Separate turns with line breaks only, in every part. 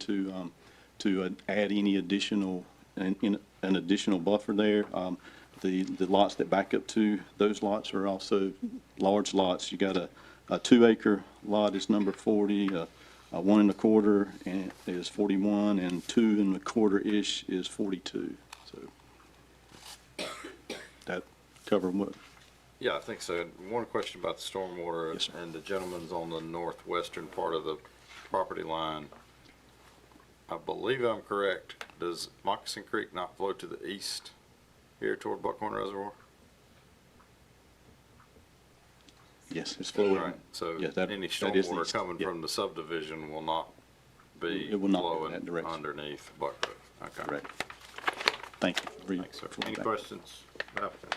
to, um, to uh, add any additional, an, in- an additional buffer there. Um, The, the lots that back up to, those lots are also large lots. You got a, a two acre lot is number forty, a, a one and a quarter and is forty-one, and two and a quarter-ish is forty-two, so. That cover what,
Yeah, I think so. And One question about the stormwater.
Yes, sir.
And the gentleman's on the northwestern part of the property line. I believe I'm correct. Does Moccasin Creek not flow to the east here toward Buckhorn Reservoir?
yes, it's flowing.
Right, so
Yeah, that-
any
that is the
stormwater
east,
coming
yeah.
from the subdivision will not be
It will not go in that
flowing
direction.
underneath Buckhorn. Okay.
Correct. Thank you. Re-
Thanks, sir.
for
Any
that.
questions? applicant?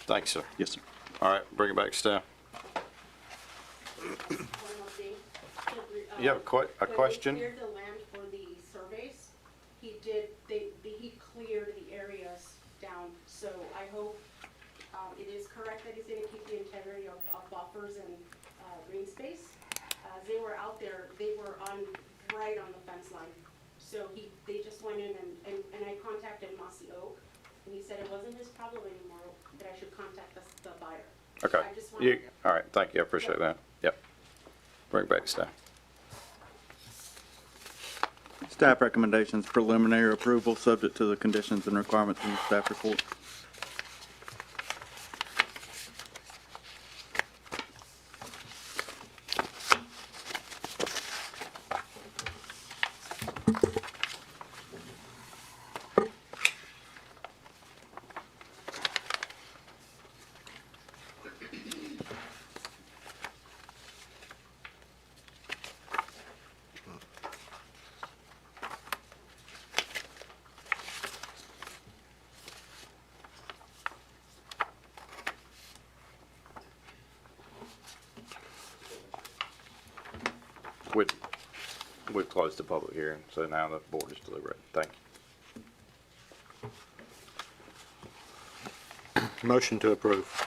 Thanks, sir.
Yes, sir.
All right, bring it back to staff.
One more thing.
You have a que- a question?
When he cleared the land for the surveys, he did, they, the- he cleared the areas down, so I hope, um, it is correct that he's gonna keep the integrity of, of buffers and, uh, green space. As they were out there, they were on, right on the fence line, so he, they just went in and, and, and I contacted Mossy Oak, and he said it wasn't his problem anymore, that I should contact the, the buyer.
Okay.
I just
You,
wanted,
all right, thank you, I appreciate that. Yep. Bring it back to staff.
Staff recommendations preliminary approval, subject to the conditions and requirements in the staff report.
We, we've closed the public hearing, so now the board is deliberating. Thank you.
Motion to approve.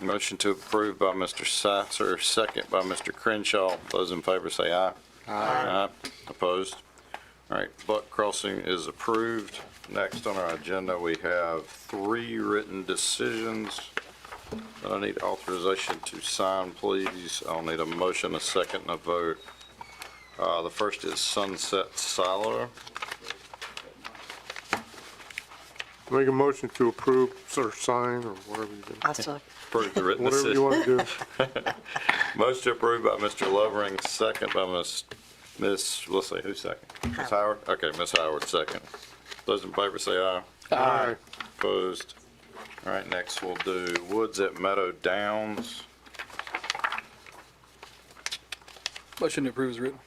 Motion to approve by Mr. Sitzer, second by Mr. Crenshaw. Those in favor say aye. Aye. Opposed? All right, Buck Crossing is approved. Next on our agenda, we have three written decisions that I need authorization to sign, please. I'll need a motion, a second, and a vote. Uh, The first is Sunset Silo.
Make a motion to approve or sign or whatever you do.
I'll still,
Approve the written
Whatever you
decision.
want to do.
Most approved by Mr. Lovering, second by Ms., Ms., let's see, who's second? Ms. Howard? Okay, Ms. Howard, second. Those in favor say aye.
Aye.
Opposed? All right, next we'll do Woods at Meadow Downs.
Motion to approve is written.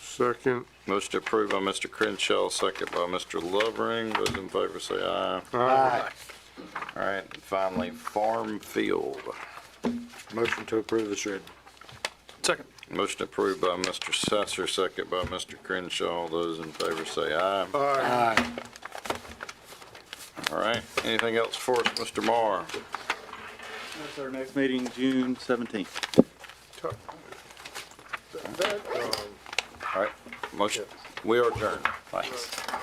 Second.
Most approved by Mr. Crenshaw, second by Mr. Lovering. Those in favor say aye.
Aye.
All right, and finally, Farm Field.
Motion to approve is read.
Second.
Motion approved by Mr. Sasser, second by Mr. Crenshaw. Those in favor say aye.
Aye.
All right, anything else for us, Mr. Marr?
That's our next meeting, June 17th.
All right, motion, we are adjourned. Thanks.